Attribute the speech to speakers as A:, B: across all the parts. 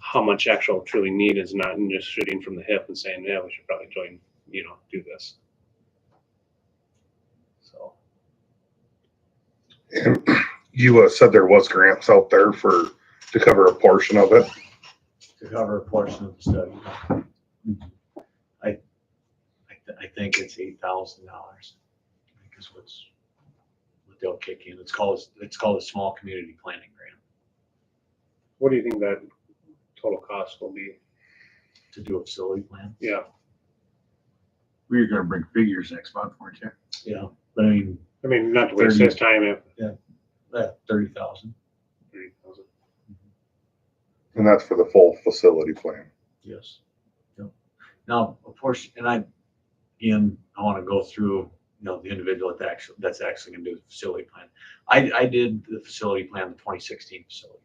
A: how much actual truly need is not just shooting from the hip and saying, yeah, we should probably join, you know, do this. So,
B: And you uh, said there was grants out there for, to cover a portion of it.
C: to cover a portion of the study. I, I, th- I think it's eight thousand dollars. I think is what's, what they'll kick in. It's called, it's called a small community planning grant
A: what do you think that total cost will be?
C: to do a facility plan.
A: Yeah,
D: We're gonna bring figures next month, weren't you?
C: Yeah. But I mean,
A: I mean, not to waste his time if.
C: that thirty thousand.
B: And that's for the full facility plan.
C: Yes. Yep. Now, a portion, and I, again, I want to go through, you know, the individual that actually, that's actually gonna do the facility plan. I, I did the facility plan, the twenty sixteen facility plan.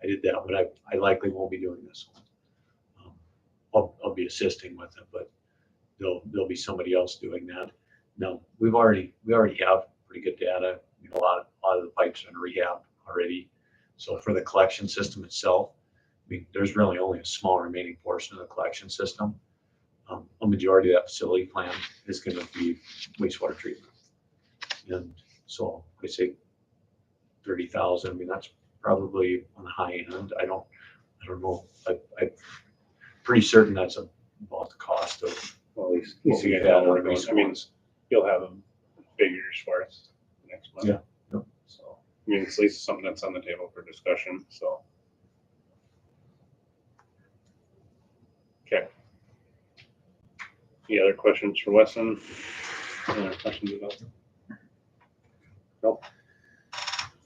C: I did that, but I, I likely won't be doing this one. Um, I'll, I'll be assisting with it, but there'll, there'll be somebody else doing that. No, we've already, we already have pretty good data. You know, A lot, a lot of the pipes are in rehab already. So for the collection system itself, I mean, there's really only a small remaining portion of the collection system. Um, A majority of that facility plan is gonna be wastewater treatment. And so I say thirty thousand, I mean, that's probably on the high end. I don't, I don't know. I, I'm pretty certain that's about the cost of.
A: Well, at least.
C: what we had on those
A: I mean,
C: ones.
A: you'll have them figures for us next month.
C: Yeah, yep.
A: So, I mean, it's at least something that's on the table for discussion, so. Okay. Any other questions for Weston? Any other questions about?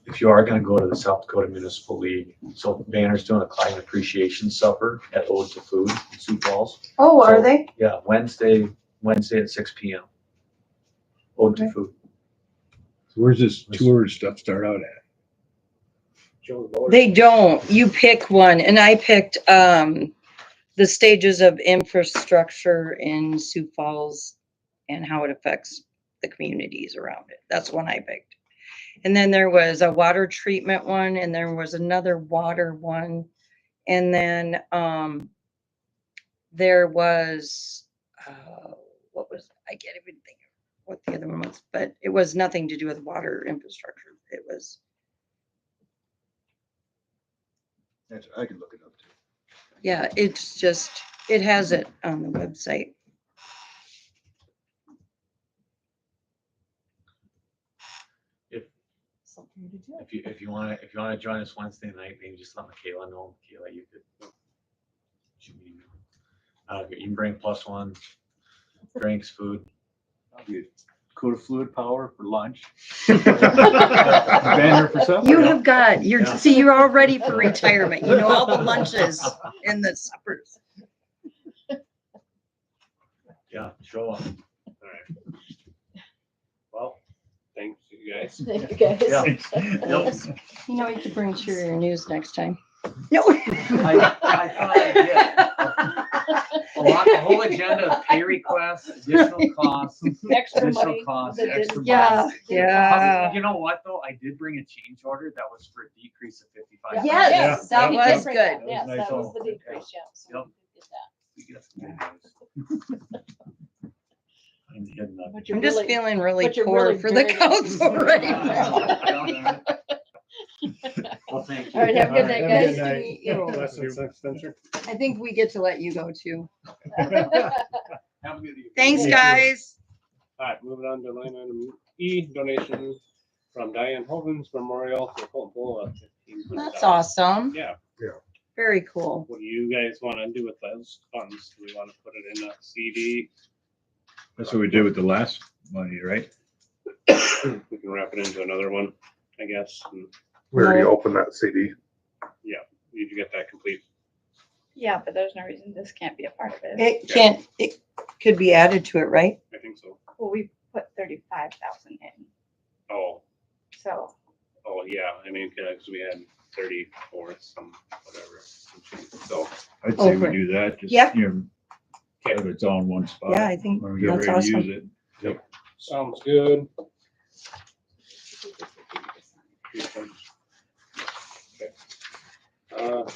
C: if you are gonna go to the South Dakota Municipal League, so Banner's doing a climate appreciation supper at Ode to Food in Sioux Falls.
E: Oh,
C: So-
E: are they?
C: Yeah, Wednesday, Wednesday at six P M. Ode to
E: Okay.
C: Food.
F: So Where's this tour stuff start out at?
G: They don't. You pick one, and I picked um, the stages of infrastructure in Sioux Falls and how it affects the communities around it. That's one I picked. And then there was a water treatment one, and there was another water one, and then um, there was uh, what was I can't even think of what the other one was, but it was nothing to do with water infrastructure. It was.
D: That's, I can look it up too.
G: Yeah, it's just, it has it on the website.
E: Something to do.
C: If you, if you wanna, if you wanna join us Wednesday night, maybe just let Michaela know, Michaela, you could. shoot me an email. Uh, you can bring plus one, drinks, food.
D: Coda fluid power for lunch.
B: Banner
D: for
F: Oh,
D: supper.
G: You have got, you're,
C: Yeah.
G: see, you're all ready for retirement. You know all the lunches and the suppers.
C: Yeah, show up.
A: Well, thanks you guys.
E: Thank you, guys.
C: Yeah.
D: Nope.
G: You know, you could bring Cheerier News next time.
D: I- I thought I did.
C: A lot, a whole agenda of pay requests, additional costs.
E: Extra
D: Additional
E: money.
D: costs,
E: that
D: extra
E: didn't-
G: Yeah,
E: Uh,
D: However,
G: yeah.
D: You know what, though? I did bring a change order that was for a decrease of fifty-five.
E: Yes,
G: Yeah,
E: that
G: that
E: was
G: was good.
E: good.
D: That was
E: Yes,
D: nice
E: that was
D: also.
E: the decrease, yeah. so
D: Yep.
E: we did that.
C: I'm hitting up.
E: But you're
G: I'm just
E: really-
G: feeling really
E: but you're
G: poor
E: really
G: for the
E: dirty.
G: council right now.
D: Well,
C: thank you.
E: All right, have a good night, guys.
G: I think we get to let you go too.
D: Have a good evening.
G: Thanks, guys.
A: All right, moving on to line item E, donation from Diane Hovens Memorial to Colton Pool of fifteen hundred.
G: That's awesome.
A: Yeah,
G: Very cool.
A: what do you guys want to do with those funds? Do we want to put it in a CD?
F: That's what we did with the last money, right?
A: We can wrap it into another one, I guess. and
B: We already
G: Right.
B: opened that CD.
A: You can get that complete.
H: Yeah, but there's no reason this can't be a part of it.
G: It can't, it could be added to it, right?
A: I think so.
H: Well, we put thirty-five thousand in,
A: Oh,
H: so
A: oh, yeah, I mean, because we had thirty-four, some, whatever. some change. So,
F: I'd say we
G: Over.
F: do that. just,
G: Yep.
F: you know, Have it all in one spot.
G: Yeah, I think
F: Uh, When we get
G: that's
F: ready to
G: awesome.
F: use it.
A: sounds good. Uh,